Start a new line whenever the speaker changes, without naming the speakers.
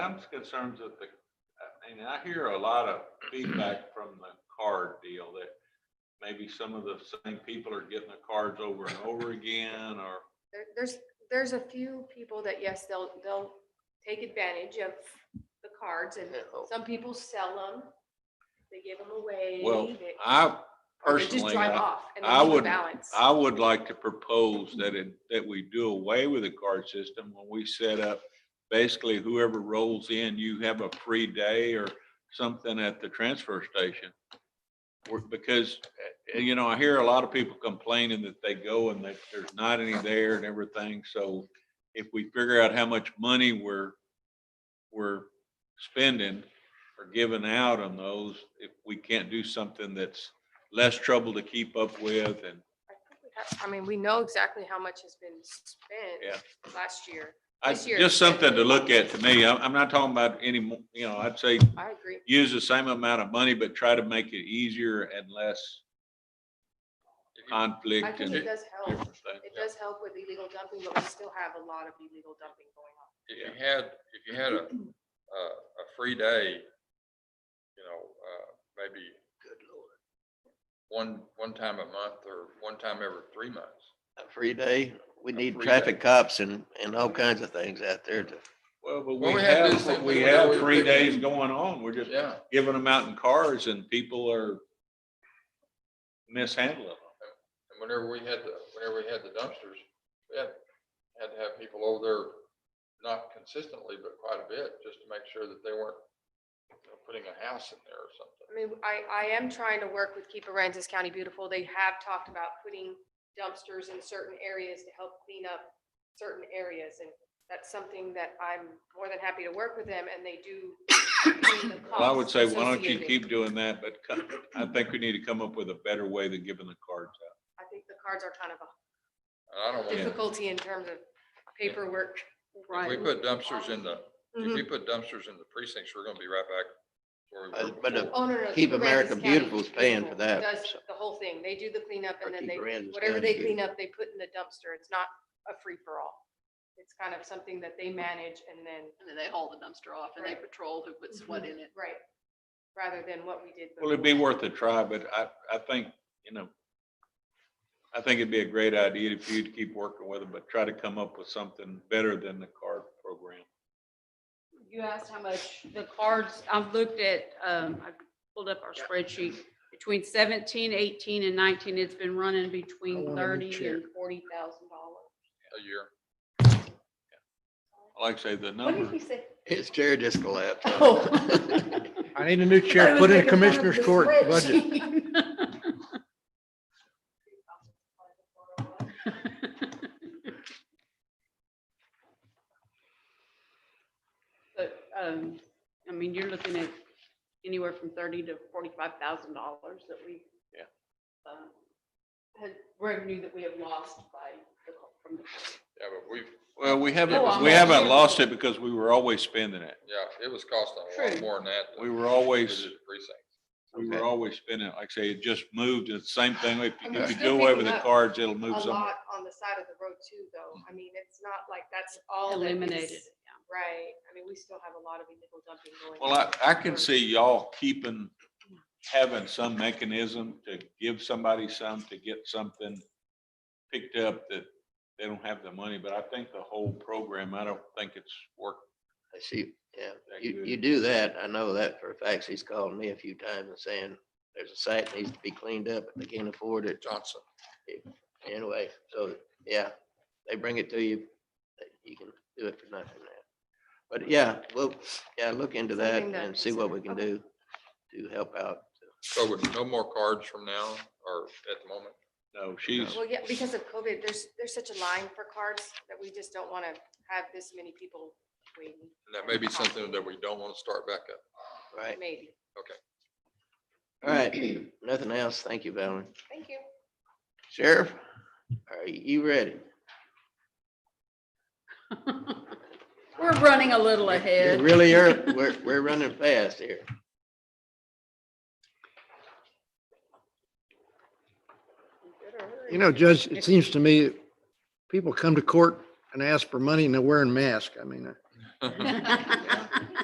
I'm concerned that the, I mean, I hear a lot of feedback from the card deal that maybe some of the same people are getting the cards over and over again, or,
There, there's, there's a few people that, yes, they'll, they'll take advantage of the cards and
oh.
some people sell them. They give them away.
well,
they-
I
or they just
personally,
drive
I
off and they
I
leave the
would-
Balance.
I would like to propose that it, that we do away with the card system when we set up, basically whoever rolls in, you have a free day or something at the transfer station. We're- Because, uh, you know, I hear a lot of people complaining that they go and that there's not any there and everything. So if we figure out how much money we're, we're spending or giving out on those, if we can't do something that's less trouble to keep up with and
I think we have- I mean, we know exactly how much has been spent. Last year.
I,
This year.
just something to look at to me. I'm, I'm not talking about any, mo- you know, I'd say
I agree.
use the same amount of money, but try to make it easier and less
I
conflict
think
and
it does help.
different things.
It does help with illegal dumping, but we still have a lot of illegal dumping going on.
If you had, if you had a, a, a free day, you know, uh, maybe. One, one time a month or one time every three months.
a free day. We
A
need
free
traffic
day.
cops and, and all kinds of things out there to,
Well, but
Well,
we
we had this
have,
thing
we
with
have
Hillary
three
Clinton.
days going on. We're just
Yeah.
giving them out in cars and people are mishandling them.
And whenever we had the, whenever we had the dumpsters, we had, had to have people over there, not consistently, but quite a bit, just to make sure that they weren't you know, putting a house in there or something.
I mean, I, I am trying to work with Keep Aransas County Beautiful. They have talked about putting dumpsters in certain areas to help clean up certain areas. And that's something that I'm more than happy to work with them and they do. clean the
Well, I would
costs
say, why don't you
Oh, associated.
keep doing that? But co- I think we need to come up with a better way than giving the cards out.
I think the cards are kind of a
And I don't want,
difficulty in terms of paperwork.
if we put dumpsters in the, if
Mhm.
we put dumpsters in the precincts, we're gonna be right back. where we were
Uh, but, uh,
before.
Oh, no, no.
Keep
Aransas
America
County
Beautiful's paying for that,
Does
so.
the whole thing. They do the cleanup
Or
and then
Keep
they,
Aransas
whatever
County
they
Beautiful.
clean up, they put in the dumpster. It's not a free-for-all. It's kind of something that they manage and then,
And then they haul the dumpster off and they
Right.
patrol who puts what in it.
right, rather than what we did.
Well, it'd be
before.
worth a try, but I, I think, you know, I think it'd be a great idea for you to keep working with them, but try to come up with something better than the card program.
You asked how much the cards, I've looked at, um, I pulled up our spreadsheet, between 17, 18, and nineteen, it's been running between thirty and forty thousand dollars.
A year.
Like I say, the number,
say?
his chair just collapsed.
Oh.
I need a new chair, put in Commissioner's Court budget.
But, um, I mean, you're looking at anywhere from thirty to forty-five thousand dollars that we.
Yeah.
um, Had revenue that we have lost by, the co- from the.
Yeah, but we've,
well, we
Oh,
haven't,
I'm
we
not
haven't
sure.
lost it because we were always spending it.
yeah, it was costing a lot
True.
more than that.
We were always,
Precinct.
we
Okay.
were always spending it. Like I say, it just moved. It's the same thing. If
And
if
they're
you
still
do away with
picking
the
up
cards, it'll
A
move somewhere.
lot on the side of the road too, though. I mean, it's not like that's all. that is-
Eliminated, yeah.
Right. I mean, we still have a lot of illegal dumping going.
Well, I,
on.
I can see y'all keeping, having some mechanism to give somebody some, to get something picked up that they don't have the money, but I think the whole program, I don't think it's worked.
I see, yeah,
That
you,
good.
you do that, I know that for a fact, he's called me a few times and saying, there's a site that needs to be cleaned up, but they can't afford it,
Johnson.
anyway, so, yeah, they bring it to you, that you can do it for nothing now. But yeah, well, yeah, look into that
Something to
and see what we can
consider.
do to help out.
So with no more cards from now or at the moment?
No, she's,
Well, yeah, because of COVID, there's, there's such a line for cards that we just don't want to have this many people waiting,
And that may be something that we don't want to start back up.
Right,
maybe.
all right, nothing else, thank you, Valerie.
Thank you.
Sheriff, are you ready?
We're running a little
You're
ahead.
Really, ear- we're, we're running fast here.
You know, Judge, it seems to me, people come to court and ask for money and they're wearing masks. I mean, uh,
Yeah.